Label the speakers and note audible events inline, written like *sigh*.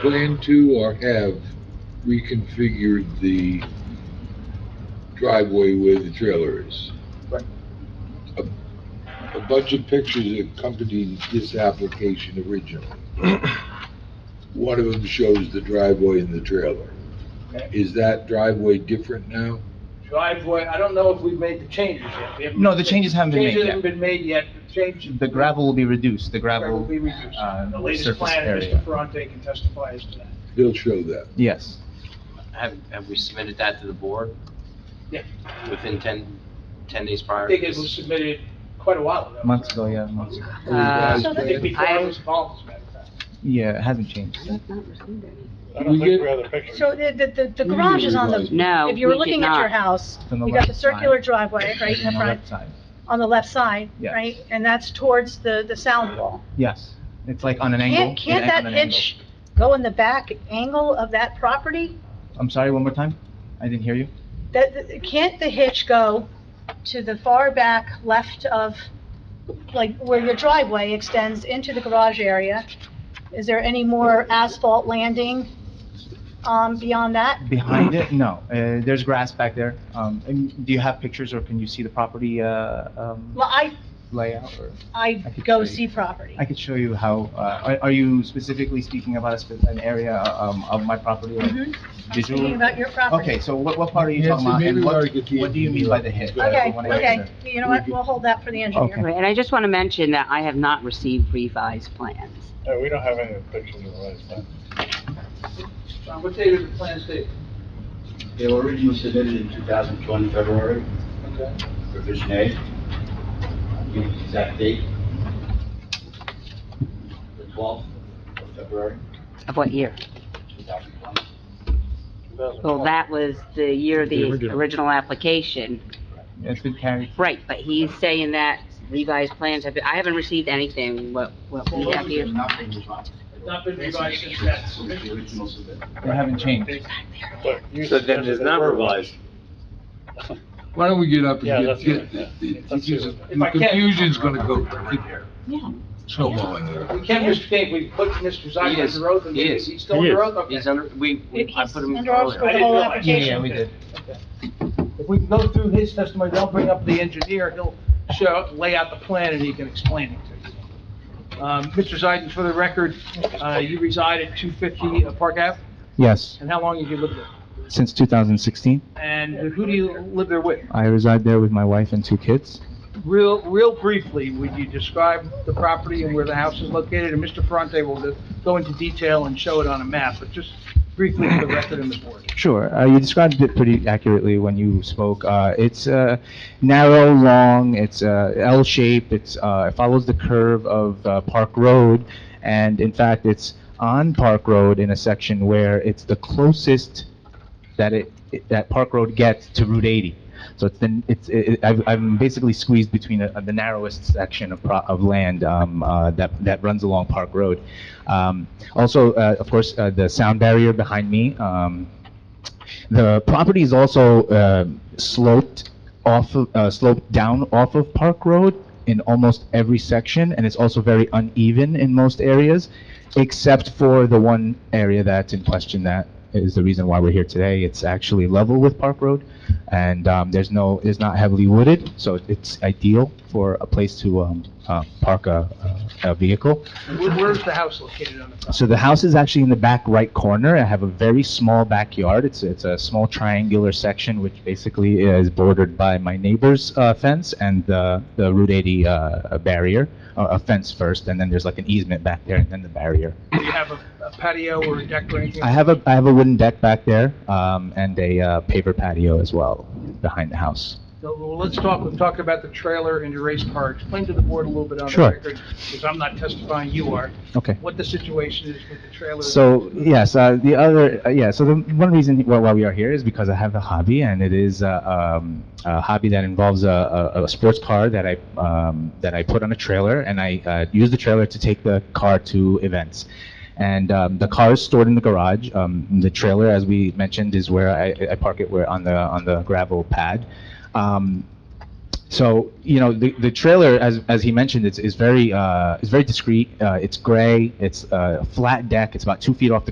Speaker 1: plan to or have reconfigured the driveway where the trailer is.
Speaker 2: Right.
Speaker 1: A a bunch of pictures accompanied this application
Speaker 2: *clears throat*
Speaker 1: originally. One of them shows the driveway and the trailer.
Speaker 2: Okay.
Speaker 1: Is that driveway different now?
Speaker 2: Driveway, I don't know if we've made the changes yet. We haven't-
Speaker 3: No, the changes haven't been made
Speaker 2: Changes
Speaker 3: yet.
Speaker 2: haven't been made yet. The change.
Speaker 3: The gravel will be reduced, the
Speaker 2: Gravel will
Speaker 3: gravel,
Speaker 2: be reduced.
Speaker 3: uh,
Speaker 2: The latest
Speaker 3: surface
Speaker 2: plan,
Speaker 3: area.
Speaker 2: Mr. Ferrante can testify as to that.
Speaker 1: He'll show that.
Speaker 3: yes.
Speaker 4: Have, have we submitted that to the board?
Speaker 2: Yeah.
Speaker 4: Within 10, 10 days
Speaker 2: I
Speaker 4: prior?
Speaker 2: think it was submitted quite a while ago.
Speaker 3: Months ago, yeah, months ago.
Speaker 1: A
Speaker 4: Uh,
Speaker 1: revised
Speaker 2: Uh, I think
Speaker 1: plan?
Speaker 2: before I was involved, as a matter of fact.
Speaker 3: Yeah, it hasn't changed.
Speaker 5: I've not received any.
Speaker 6: I
Speaker 1: We
Speaker 6: don't think
Speaker 1: get-
Speaker 6: we have the picture.
Speaker 7: So the, the, the- the
Speaker 1: We need
Speaker 7: garage
Speaker 1: to
Speaker 7: is on
Speaker 1: revise.
Speaker 7: the,
Speaker 5: No,
Speaker 7: if you were
Speaker 5: we did
Speaker 7: looking at your
Speaker 5: not.
Speaker 7: house,
Speaker 3: It's on the
Speaker 7: you got the
Speaker 3: left side.
Speaker 7: circular driveway, right, in the
Speaker 3: On
Speaker 7: front,
Speaker 3: left side.
Speaker 7: on the left side,
Speaker 3: Yes.
Speaker 7: right? And that's towards the, the sound wall.
Speaker 3: Yes, it's like on an angle.
Speaker 7: Can't, can't
Speaker 3: an- on
Speaker 7: that
Speaker 3: an angle.
Speaker 7: pitch go in the back angle of that property?
Speaker 3: I'm sorry, one more time? I didn't hear you.
Speaker 7: That, that- can't the hitch go to the far back left of, like, where your driveway extends into the garage area? Is there any more asphalt landing, um, beyond that?
Speaker 3: Behind it, no, uh, there's grass back there. Um, and do you have pictures or can you see the property, uh, um,
Speaker 7: Well, I,
Speaker 3: layout or?
Speaker 7: I
Speaker 3: I could
Speaker 7: go
Speaker 3: show you.
Speaker 7: see property.
Speaker 3: I could show you how, uh, are, are you specifically speaking about a spe- an area, um, of my property or
Speaker 7: Mhm. I'm
Speaker 3: visual?
Speaker 7: speaking about your property.
Speaker 3: Okay, so what, what part are you
Speaker 1: Nancy,
Speaker 3: talking about?
Speaker 1: maybe
Speaker 3: And
Speaker 1: we ought
Speaker 3: what,
Speaker 1: to get the
Speaker 3: what do you mean by the hit?
Speaker 1: engineer
Speaker 7: Okay,
Speaker 3: I wanna make
Speaker 7: okay,
Speaker 3: sure.
Speaker 7: you know what, we'll hold that for the
Speaker 3: Okay.
Speaker 7: engineer.
Speaker 5: Right, And I just want to mention that I have not received revised plans.
Speaker 6: No, we don't have any pictures of the last time.
Speaker 2: John, what date are the plans date?
Speaker 8: They were originally submitted in 2020, February,
Speaker 2: Okay.
Speaker 8: revision A. Give you the exact date. The 12th of February,
Speaker 5: Of what year?
Speaker 8: 2020.
Speaker 5: Well, that was the year of the original application.
Speaker 3: It's been carried,
Speaker 5: Right, but he's saying that revised plans have, been- I haven't received anything, what, what we have here.
Speaker 8: Nothing revised.
Speaker 2: Not been revised since that
Speaker 8: Since the
Speaker 2: submission.
Speaker 8: original submission.
Speaker 3: they haven't changed.
Speaker 6: Look, you said
Speaker 9: it's
Speaker 6: they
Speaker 9: not
Speaker 6: were-
Speaker 9: revised.
Speaker 1: Why don't we get up
Speaker 6: Yeah,
Speaker 1: and get,
Speaker 6: let's do it,
Speaker 1: get,
Speaker 6: yeah.
Speaker 1: the-
Speaker 6: Let's do
Speaker 1: because
Speaker 6: it.
Speaker 2: If I
Speaker 1: the
Speaker 2: can-
Speaker 1: confusion's gonna go
Speaker 5: Yeah.
Speaker 1: snowballing there.
Speaker 2: We can't mistake, we put Mr.
Speaker 4: He
Speaker 2: Zucker
Speaker 4: is.
Speaker 2: in the road, and
Speaker 4: He
Speaker 2: he's
Speaker 4: is.
Speaker 2: still in
Speaker 6: He
Speaker 2: the
Speaker 6: is.
Speaker 2: road, okay.
Speaker 4: He's under, we, we- I
Speaker 7: He's
Speaker 4: put him
Speaker 7: under our scope,
Speaker 4: earlier.
Speaker 7: the
Speaker 2: didn't
Speaker 7: whole
Speaker 2: realize.
Speaker 3: Yeah,
Speaker 7: application.
Speaker 3: yeah, we did.
Speaker 2: If we go through his testimony, they'll bring up the engineer, he'll show, lay out the plan, and he can explain it to you. Um, Mr. Zeidman, for the record, uh, you reside at 250 Park Ave,
Speaker 3: Yes,
Speaker 2: and how long have you lived there?
Speaker 3: since 2016.
Speaker 2: And who do you live there with?
Speaker 3: I reside there with my wife and two kids.
Speaker 2: Real, real briefly, would you describe the property and where the house is located? And Mr. Ferrante will go- go into detail and show it on a map, but just briefly for the record and the board.
Speaker 3: Sure, uh, you described it pretty accurately when you spoke. Uh, it's uh, narrow, long, it's uh, L shape, it's, uh, it follows the curve of uh, Park Road, and in fact, it's on Park Road in a section where it's the closest that it, it- that Park Road gets to Route 80. So it's then, it's, it, it- I've, I'm basically squeezed between a, the narrowest section of, pro- of land, um, uh, that, that runs along Park Road. Um, also, uh, of course, uh, the sound barrier behind me, um, the property is also uh, sloped off, of- uh, sloped down off of Park Road in almost every section, and it's also very uneven in most areas, except for the one area that's in question that is the reason why we're here today. It's actually level with Park Road, and um, there's no, it's not heavily wooded, so it's ideal for a place to um, uh, park a a vehicle.
Speaker 2: Where- Where's the house located on the property?
Speaker 3: So the house is actually in the back right corner. I have a very small backyard. It's, it's a small triangular section, which basically is bordered by my neighbor's uh, fence and the, the Route 80 uh, barrier, uh, a fence first, and then there's like an easement back there and then the barrier.
Speaker 2: Do you have a a patio or a deck or anything?
Speaker 3: I have a, I have a wooden deck back there um, and a uh, paver patio as well behind the house.
Speaker 2: No, Well, let's talk, we've talked about the trailer and your race car. Explain to the board a little bit on the
Speaker 3: Sure.
Speaker 2: record, because I'm not testifying, you are,
Speaker 3: Okay.
Speaker 2: what the situation is with the trailer.
Speaker 3: So yes, uh, the other uh, yeah. So the one reason why, why we are here is because I have a hobby, and it is uh, um, a hobby that involves a, a, a sports car that I um, that I put on a trailer, and I uh, use the trailer to take the car to events. And um, the car is stored in the garage. Um, the trailer, as we mentioned, is where I, I park it, where on the on the gravel pad. Um, so, you know, the, the trailer, as, as he mentioned, it's, is very, uh, it's very discreet. Uh, it's gray, it's, uh, a flat deck, it's about two feet off the